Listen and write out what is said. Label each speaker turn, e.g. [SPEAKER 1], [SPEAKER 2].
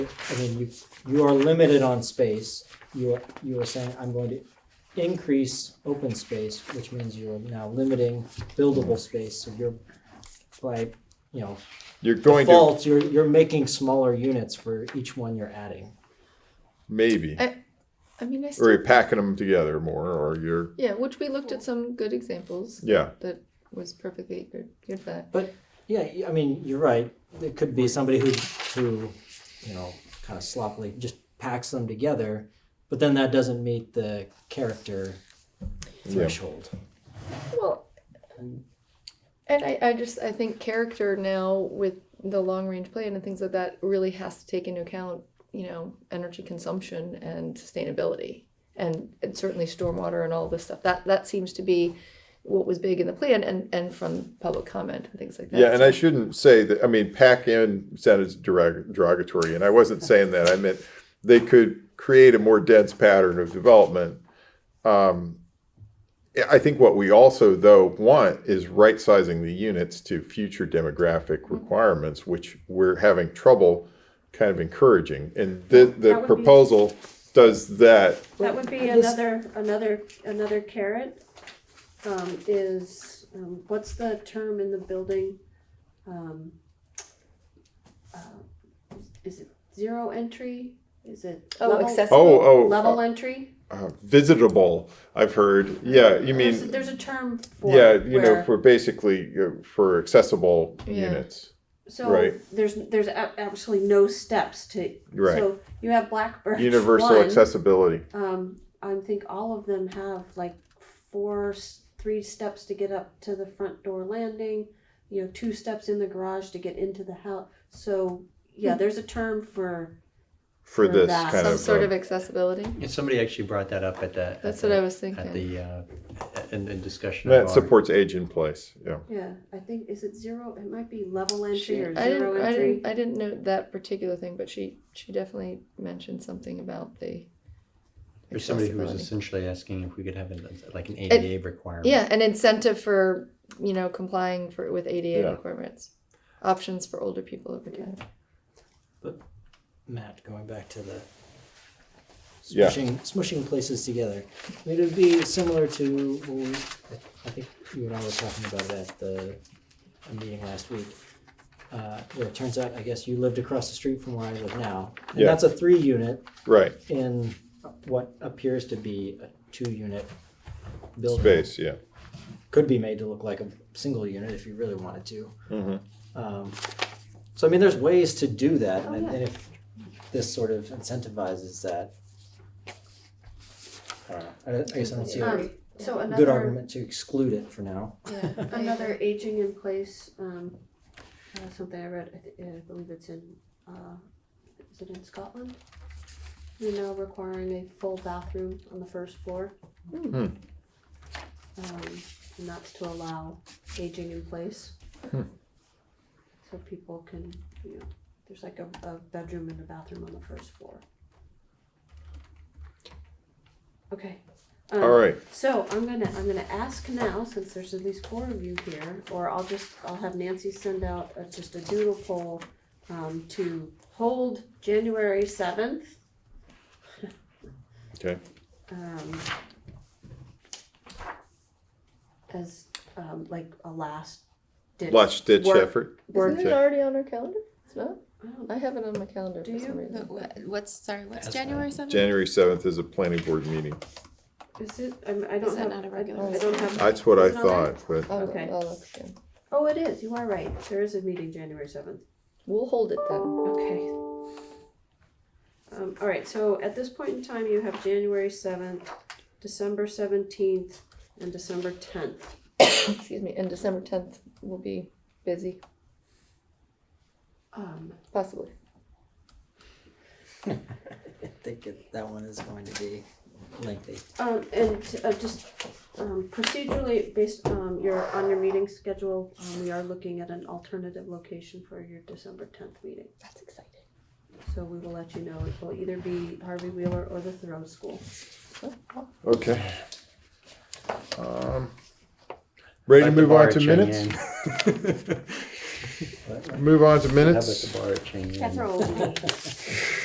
[SPEAKER 1] I mean, you, you are limited on space. You are, you are saying, I'm going to increase open space, which means you are now limiting buildable space. So you're, by, you know,
[SPEAKER 2] You're going to,
[SPEAKER 1] default, you're, you're making smaller units for each one you're adding.
[SPEAKER 2] maybe,
[SPEAKER 3] I- I mean, I still,
[SPEAKER 2] or you're packing them together more, or you're,
[SPEAKER 3] yeah, which we looked at some good examples
[SPEAKER 2] yeah,
[SPEAKER 3] that was perfectly good, good for that.
[SPEAKER 1] Yeah, y- I mean, you're right. It could be somebody who, who, you know, kind of sloppily just packs them together, but then that doesn't meet the character threshold.
[SPEAKER 3] Well, and I, I just I think character now with the long range plan and things like that really has to take into account you know energy consumption and sustainability and, and certainly stormwater and all this stuff that that seems to be what was big in the plan and and from public comment and things like that
[SPEAKER 2] Yeah, and I shouldn't say that, I mean, pack in sounded derog- derogatory, and I wasn't saying that. I meant they could create a more dense pattern of development. Um, I- I think what we also, though, want is right sizing the units to future demographic
[SPEAKER 4] Mm-hmm.
[SPEAKER 2] requirements, which we're having trouble kind of encouraging. And the, the
[SPEAKER 4] That would be-
[SPEAKER 2] proposal does that.
[SPEAKER 4] That would be
[SPEAKER 1] Well, this-
[SPEAKER 4] another, another, another carrot, um, is, um, what's the term in the building? Um, uh, Is it zero entry? Is it?
[SPEAKER 3] Oh,
[SPEAKER 4] level-
[SPEAKER 3] accessible.
[SPEAKER 2] Oh, oh,
[SPEAKER 4] Level entry?
[SPEAKER 2] uh, visitable, I've heard. Yeah, you mean.
[SPEAKER 4] There's, there's a term for.
[SPEAKER 2] Yeah,
[SPEAKER 4] it
[SPEAKER 2] you know,
[SPEAKER 4] where-
[SPEAKER 2] for basically uh, for accessible
[SPEAKER 3] Yeah.
[SPEAKER 2] units.
[SPEAKER 4] So
[SPEAKER 2] right.
[SPEAKER 4] there's, there's a- absolutely no steps to.
[SPEAKER 2] Right.
[SPEAKER 4] So you have Blackbird.
[SPEAKER 2] Universal
[SPEAKER 4] one,
[SPEAKER 2] accessibility.
[SPEAKER 4] Um, I think all of them have like four, s- three steps to get up to the front door landing. You know, two steps in the garage to get into the house. So yeah, there's a term for
[SPEAKER 2] for
[SPEAKER 4] For
[SPEAKER 2] this
[SPEAKER 4] that.
[SPEAKER 2] kind
[SPEAKER 3] some
[SPEAKER 2] of,
[SPEAKER 3] sort
[SPEAKER 2] uh,
[SPEAKER 3] of accessibility
[SPEAKER 5] Yeah, somebody actually brought that up at the.
[SPEAKER 3] that's
[SPEAKER 5] at
[SPEAKER 3] what I
[SPEAKER 5] the-
[SPEAKER 3] was thinking
[SPEAKER 5] At the, uh, in, in discussion. of
[SPEAKER 2] that
[SPEAKER 5] our-
[SPEAKER 2] supports age in place. Yeah,
[SPEAKER 4] yeah. I think is it zero? It might be level entry
[SPEAKER 3] She,
[SPEAKER 4] or
[SPEAKER 3] I
[SPEAKER 4] zero
[SPEAKER 3] didn't, I
[SPEAKER 4] entry.
[SPEAKER 3] didn't, I didn't know that particular thing, but she, she definitely mentioned something about the.
[SPEAKER 5] There's somebody who was
[SPEAKER 3] accessibility.
[SPEAKER 5] essentially asking if we could have an- like an ADA requirement.
[SPEAKER 3] Yeah, an incentive for, you know, complying for, with ADA
[SPEAKER 2] Yeah.
[SPEAKER 3] requirements, options for older people over time.
[SPEAKER 1] Matt, going back to the
[SPEAKER 2] Yeah.
[SPEAKER 1] smushing, smushing places together. I mean, it would be similar to, what we- I think you and I were talking about it at the a meeting last week. Uh, where it turns out, I guess you lived across the street from where I live now. And
[SPEAKER 2] Yeah.
[SPEAKER 1] that's a three unit
[SPEAKER 2] right.
[SPEAKER 1] in what appears to be a two unit building.
[SPEAKER 2] Space. Yeah,
[SPEAKER 1] Could be made to look like a single unit if you really wanted to.
[SPEAKER 2] Mhm.
[SPEAKER 1] Um, so I mean, there's ways to do that, and,
[SPEAKER 4] Oh, yeah.
[SPEAKER 1] and if this sort of incentivizes that, I don't know. I, don't- I guess I don't see a
[SPEAKER 4] Um, so
[SPEAKER 1] good
[SPEAKER 4] another
[SPEAKER 1] argument to exclude it for now.
[SPEAKER 3] Yeah,
[SPEAKER 4] another aging in place. Um, uh, something I read. I, th- I believe it's in. Uh, is it in Scotland? You're now requiring a full bathroom on the first floor. um, and that's to allow aging in place.
[SPEAKER 2] Hmm.
[SPEAKER 4] So people can, you know, there's like a, a bedroom and a bathroom on the first floor. Okay. Um,
[SPEAKER 2] All right.
[SPEAKER 4] So I'm gonna, I'm gonna ask now, since there's at least four of you here, or I'll just, I'll have Nancy send out a- just a doodle poll um, to hold January seventh.
[SPEAKER 2] Okay.
[SPEAKER 4] um, as um, like a last ditch
[SPEAKER 2] Last stitch
[SPEAKER 4] work- Oh,
[SPEAKER 2] effort.
[SPEAKER 4] work-
[SPEAKER 3] Isn't it already on our calendar? It's not?
[SPEAKER 4] I don't know.
[SPEAKER 3] I have it on my calendar
[SPEAKER 4] Do
[SPEAKER 3] for some
[SPEAKER 4] you?
[SPEAKER 3] reason.
[SPEAKER 6] But wh- What's, sorry, what's
[SPEAKER 5] That's
[SPEAKER 6] January seventh?
[SPEAKER 2] January seventh is a planning board meeting.
[SPEAKER 4] Is it? I'm, I don't
[SPEAKER 6] that
[SPEAKER 4] have.
[SPEAKER 6] not a
[SPEAKER 4] I-
[SPEAKER 6] regular
[SPEAKER 4] I don't have.
[SPEAKER 2] That's what I
[SPEAKER 4] Isn't it on
[SPEAKER 2] thought, but
[SPEAKER 3] I'll-
[SPEAKER 4] Okay.
[SPEAKER 3] I'll look again.
[SPEAKER 4] Oh, it is. You are right. There is a meeting January seventh.
[SPEAKER 3] We'll hold it then.
[SPEAKER 4] Okay. Um, all right. So at this point in time, you have January seventh, December seventeenth, and December tenth.
[SPEAKER 3] Excuse me, and December tenth will be busy,
[SPEAKER 4] Um,
[SPEAKER 3] possibly.
[SPEAKER 1] I think it, that one is going to be lengthy.
[SPEAKER 4] Um, and uh, just um, procedurally, based on your, on your meeting schedule, um, we are looking at an alternative location for your December tenth meeting.
[SPEAKER 3] That's exciting.
[SPEAKER 4] So we will let you know. It will either be Harvey Wheeler or the Thoreau School.
[SPEAKER 2] okay. Um, ready to move on to minutes?
[SPEAKER 7] But-
[SPEAKER 8] Move on to
[SPEAKER 2] How about
[SPEAKER 8] minutes.
[SPEAKER 2] the bar chain?
[SPEAKER 5] That's our old name.